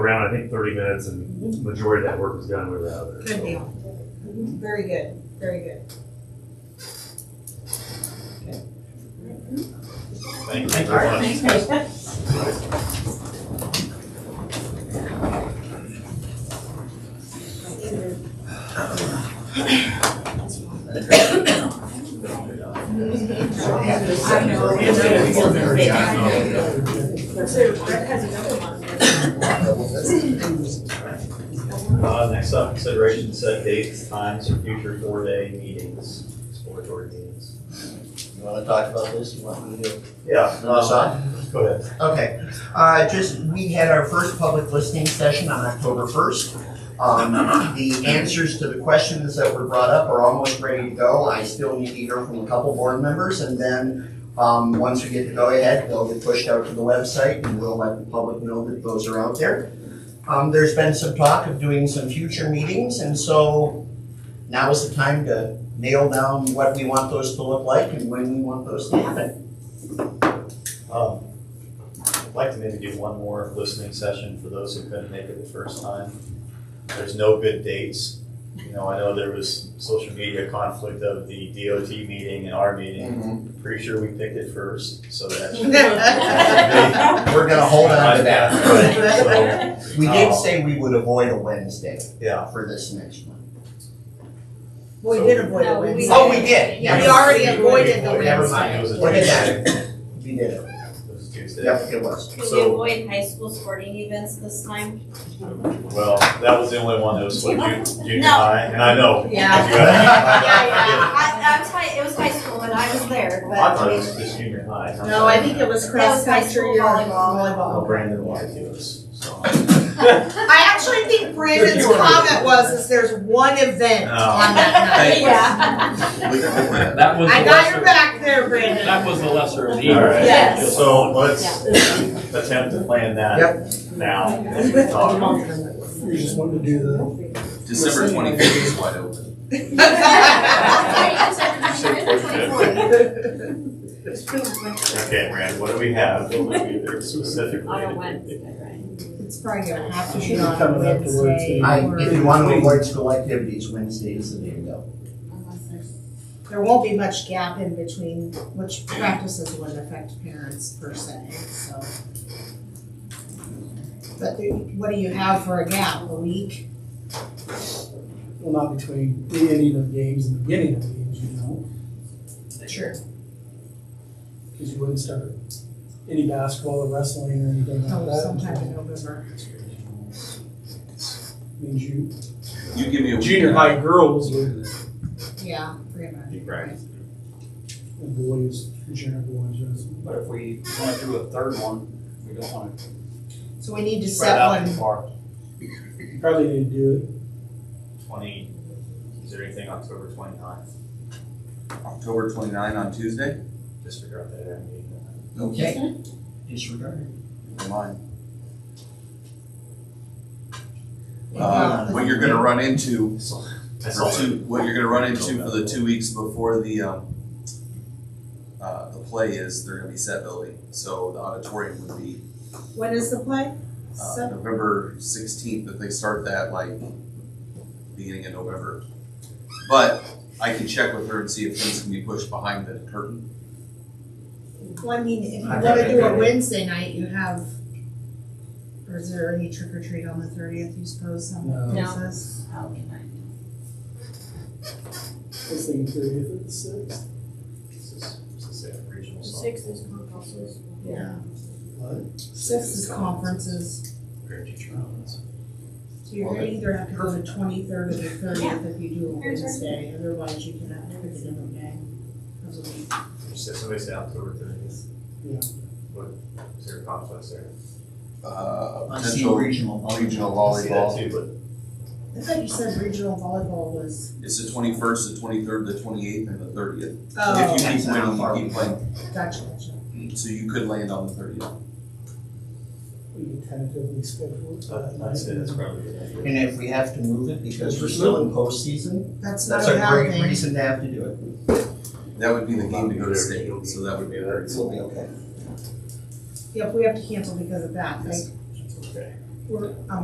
around, I think, thirty minutes, and majority of that work was done, we were out of there. Good So, deal. Very good, very good. Thank you very much. Uh, next up, consideration to set dates, times for future four-day meetings, exploratory meetings. You wanna talk about this, you want me to? Yeah, No, sorry. go ahead. Okay, uh, just, we had our first public listening session on October first. Um, the answers to the questions that were brought up are almost ready to go. I still need to hear from a couple board members and then, um, once we get the go-ahead, they'll get pushed out to the website and we'll let the public know that those are out there. Um, there's been some talk of doing some future meetings and so now is the time to nail down what we want those to look like and when we want those to happen. Um, I'd like to maybe do one more listening session for those who couldn't make it the first time. There's no good dates. You know, I know there was social media conflict of the DOT meeting and our meeting. Pretty sure we picked it first, so that. We're gonna hold on to that. So, We did say we would avoid a Wednesday Yeah, for this next one. Well, we did avoid a No, we- Wednesday. Oh, we did. Yeah, we already avoided the Never Wednesday. mind. It was a Look at Tuesday. that. We did it. it was Tuesday. Yep, it was. Can we So- avoid high school sporting events this time? Well, that was the only one that was what, ju- junior No. high, and I know. Yeah. You had- I know, I did. I, I was high, it was high school when I was there, I but thought it was just junior high. I'm No, I sorry. think it was That was cross high country school or volleyball. Well, volleyball. Oh, Brandon lied to us, so. I actually think Brandon's You were- comment was, is there's one event No. on that night. yeah. That was I the got your lesser, back there, Brandon. that was the lesser of the All right. evils. Yes. So let's attempt to plan that now. as we talk. You just wanted to do the. December twenty-fifth is wide open. Okay, Brandon, what do we have? What do we do specifically? On a Wednesday, right? It's probably gonna have to You be should on come a up to Wednesday. Wednesday. I, if you wanna avoid school activities, Wednesday is the day to go. Unless there's- There won't be much gap in between which practices would affect parents per se, so. But do- what do you have for a gap, a week? Well, not between the ending of games and the beginning of games, you know, Sure. because you wouldn't start any basketball or wrestling or anything Oh, like that. Sometime in November. Means you, You give me a. junior high girls would, Yeah, pretty much. Right. and boys, junior boys, wrestling. But if we want to do a third one, we don't want to So we need to spread set out too one, far. You probably need to do it. Twenty, is there anything October twenty-ninth? October twenty-nine on Tuesday? Disregard that. I mean, Okay. Disregard. Never mind. Uh, Uh, what you're gonna run into, I saw that. two- what you're gonna run into for the two weeks before the, um, uh, the play is they're gonna be set building, so the auditorium would be, when is the play? uh, So, November sixteenth, but they start that like beginning of November. But I can check with her and see if things can be pushed behind the curtain. well, I mean, if you I wanna think do a I- Wednesday night, you have, or is there any trick or treat on the thirtieth, you suppose, some No. No. places? This thing thirtieth at six. This is, this is a regional song. is conferences. Yeah. What? Six is conferences, Parent teacher conference. so you're gonna either have to go to twenty-third or the thirtieth if you do a Here's our- Wednesday, otherwise you cannot do it another day. of the week. You said somebody said October thirtieth. Yeah. What, is there a conflict there? Uh, I see potential regional. regional I see that volleyball. too, but I thought you said regional volleyball was, It's the twenty-first, the twenty-third, the twenty-eighth, and the thirtieth. oh, If you Depends keep on how far winning, we you keep playing, gotcha, gotcha. so you could land on the thirtieth. We can tentatively schedule it. Uh, I'd say that's probably a good idea. And if we have to move it because we're still in postseason, That's not that's a a bad great thing. reason to have to do it. That would be the game to go to state, so that would be very. We'll be okay. Yep, we have to cancel because of that, right? Okay. we're, um,